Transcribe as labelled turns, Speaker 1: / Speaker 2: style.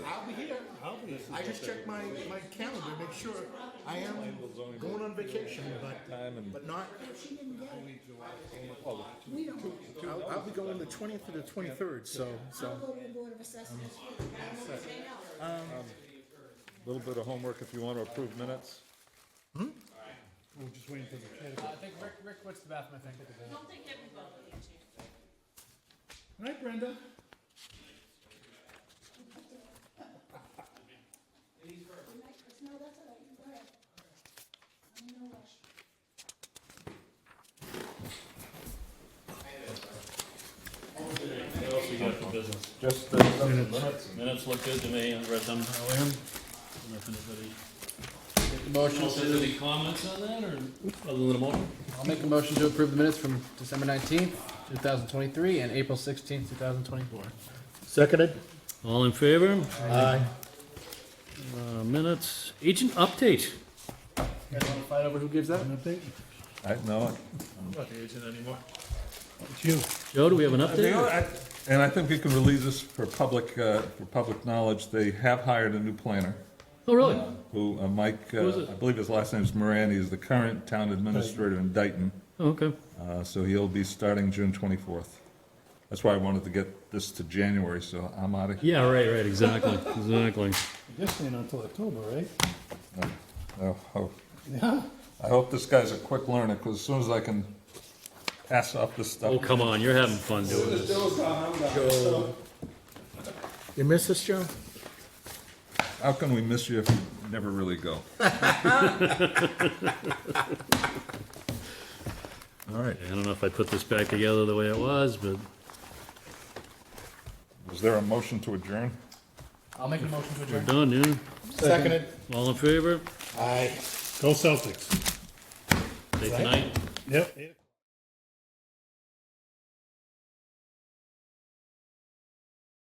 Speaker 1: this is
Speaker 2: I
Speaker 1: what
Speaker 2: just
Speaker 1: they-
Speaker 2: check my, my calendar, to make sure I am going on vacation, but,
Speaker 1: Time and.
Speaker 2: but not,
Speaker 3: She didn't get it.
Speaker 1: Oh,
Speaker 3: We don't. get it.
Speaker 2: I'll, I'll be going the twentieth to the twenty-third, so,
Speaker 3: I'll
Speaker 2: so.
Speaker 3: go to the Board of Assessments. I won't say no.
Speaker 1: Little bit of homework if you want to approve minutes.
Speaker 2: We're just waiting for the.
Speaker 4: I think Rick, Rick quits the bathroom, I think.
Speaker 5: Don't think everybody a chance.
Speaker 2: Night, Brenda.
Speaker 3: No, that's all right, go ahead. I'm in no rush.
Speaker 6: What else we got for business?
Speaker 1: Just the
Speaker 6: Minutes look good to me, I read them. Nothing, anybody?
Speaker 7: Make a motion
Speaker 6: Else has any
Speaker 7: to,
Speaker 6: comments on that, or, other than a motion?
Speaker 7: I'll make a motion to approve the minutes from December nineteenth, two thousand twenty-three, and April sixteenth, two thousand twenty-four.
Speaker 2: Seconded.
Speaker 6: All in favor?
Speaker 2: Aye.
Speaker 6: Uh, minutes, agent update.
Speaker 7: You guys wanna fight over who gives that?
Speaker 1: I know,
Speaker 6: Not the agent anymore.
Speaker 2: It's you.
Speaker 6: Joe, do we have an
Speaker 1: They are,
Speaker 6: update?
Speaker 1: I- and I think we can release this for public, uh, for public knowledge. They have hired a new planner,
Speaker 6: Oh, really?
Speaker 1: who, uh, Mike,
Speaker 6: Who is
Speaker 1: uh,
Speaker 6: it?
Speaker 1: I believe his last name is Moran. He's the current town administrator in Dayton.
Speaker 6: Oh, Okay.
Speaker 1: Uh, so he'll be starting June twenty-fourth. That's why I wanted to get this to January, so I'm out of here.
Speaker 6: Yeah, right, right, exactly, exactly.
Speaker 2: This ain't until October, right?
Speaker 1: Oh, oh.
Speaker 2: Yeah.
Speaker 1: I hope this guy's a quick learner, because as soon as I can pass off this
Speaker 6: Oh,
Speaker 1: stuff.
Speaker 6: come on, you're having fun doing this.
Speaker 2: You miss us, Joe?
Speaker 1: How can we miss you if you never really go? All right,
Speaker 6: I don't know if I put this back together the way it was, but
Speaker 1: is there a motion to adjourn?
Speaker 7: I'll make a motion to
Speaker 6: we're
Speaker 7: adjourn.
Speaker 6: done, yeah?
Speaker 7: Seconded.
Speaker 6: All in favor?
Speaker 2: Aye. Go Celtics.
Speaker 6: Say tonight.
Speaker 2: Yep.